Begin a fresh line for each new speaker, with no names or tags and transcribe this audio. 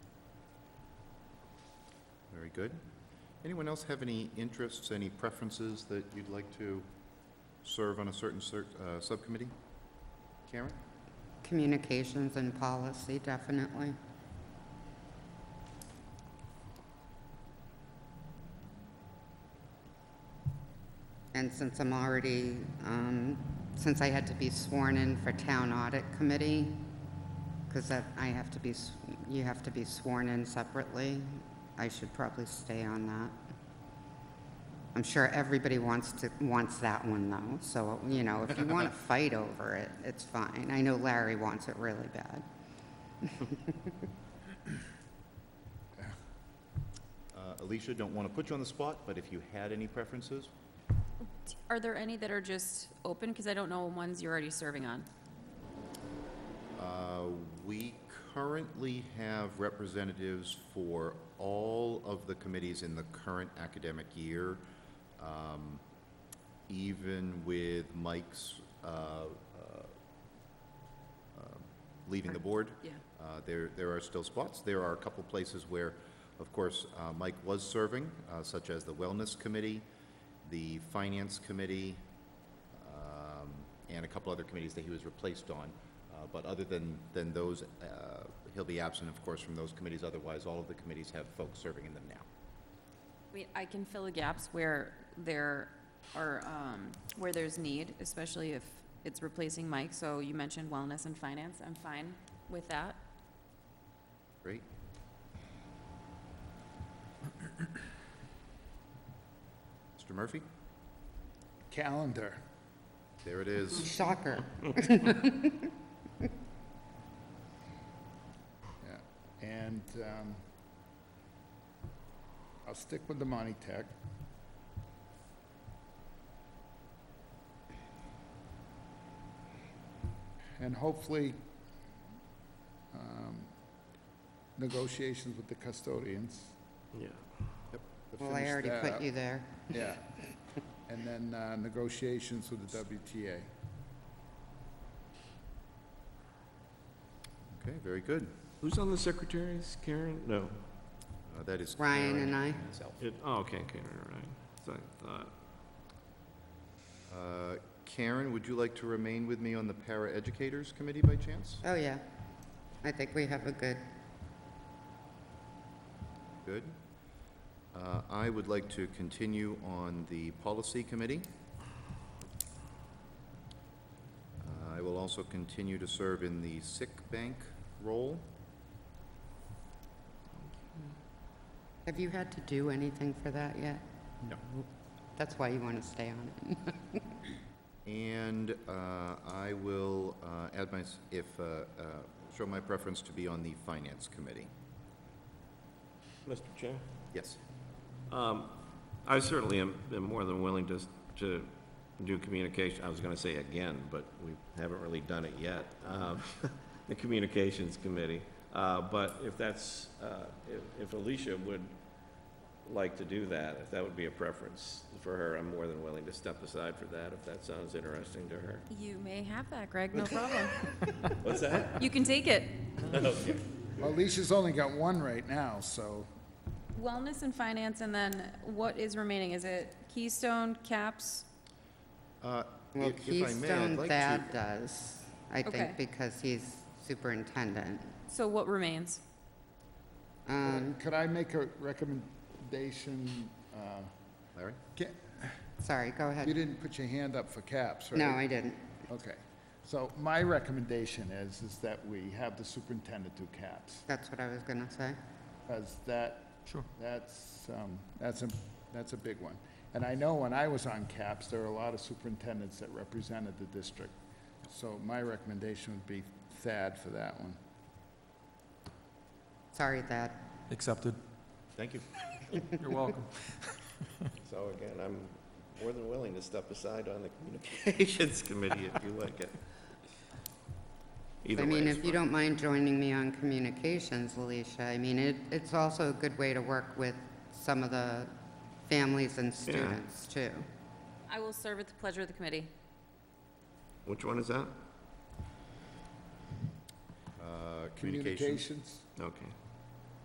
Very good. Anyone else have any interests, any preferences that you'd like to serve on a certain cer- uh, subcommittee? Karen?
Communications and policy, definitely. And since I'm already, um, since I had to be sworn in for Town Audit Committee, because that, I have to be, s- you have to be sworn in separately, I should probably stay on that. I'm sure everybody wants to, wants that one though, so, you know, if you want to fight over it, it's fine. I know Larry wants it really bad.
Uh, Alicia, don't want to put you on the spot, but if you had any preferences?
Are there any that are just open? Because I don't know ones you're already serving on.
Uh, We currently have representatives for all of the committees in the current academic year, um, even with Mike's uh, uh, um, leaving the board.
Yeah.
Uh, There, there are still spots. There are a couple places where, of course, uh, Mike was serving, uh, such as the Wellness Committee, the Finance Committee, um, and a couple other committees that he was replaced on. Uh, But other than, than those, uh, he'll be absent, of course, from those committees. Otherwise, all of the committees have folks serving in them now.
I mean, I can fill the gaps where there are, um, where there's need, especially if it's replacing Mike. So you mentioned wellness and finance. I'm fine with that.
Great. Mr. Murphy,
Calendar.
there it is.
Shocker.
Yeah. And um, I'll stick with the Monty Tech. And hopefully, um, negotiations with the custodians.
Yeah.
to
Well, I
finish
already
that
put
up.
you there.
Yeah. And then uh, negotiations with the
Mm-hmm.
WTA.
Okay, very good.
Who's on the secretaries? Karen? No.
Uh, That is.
Ryan
Karen
and I.
myself.
It, oh, okay, Karen, all right. So I thought,
Uh, Karen, would you like to remain with me on the Para Educators Committee by chance?
Oh, yeah. I think we have a good,
Good. Uh, I would like to continue on the Policy Committee. Uh, I will also continue to serve in the sick bank role.
have you had to do anything for that yet?
No.
That's why you want to stay on it.
And uh, I will uh, add my, if, uh, uh, show my preference to be on the Finance Committee.
Mr. Chair?
Yes.
Um, I certainly am, am more than willing to, s- to do communication, I was gonna say again, but we haven't really done it yet, um, the Communications Committee. Uh, but if that's, uh, if, if Alicia would like to do that, if that would be a preference for her, I'm more than willing to step aside for that, if that sounds interesting to her.
You may have that, Greg, no problem.
What's that?
You can take it.
Well, Alicia's only got one right now, so.
Wellness and finance, and then what is remaining? Is it Keystone, CAPS?
Uh,
Well,
if- if I may, I'd
Keystone
like to-
Thad does, I
Okay.
think, because he's superintendent.
So what remains?
Um,
Could I make a recommendation? uh,
Larry?
ca-
sorry, go
You
ahead.
didn't put your hand up for caps, right?
No, I didn't.
Okay. So my recommendation is, is that we have the superintendent do caps,
That's what I was going to say.
because that,
Sure.
that's, um, that's a, that's a big one. And I know when I was on caps, there were a lot of superintendents that represented the district. So my recommendation would be Thad for that one.
Sorry, Thad.
Accepted.
Thank you.
You're welcome.
So again, I'm more than willing to step aside on the Communications Committee if you like it. Either
I
way
mean, if
is
you
fine.
don't mind joining me on communications, Alicia, I mean, it, it's also a good way to work with some of the families and students, too.
I will serve at the pleasure of the committee.
Which one is that?
Uh, Communications.
Communications?
Okay.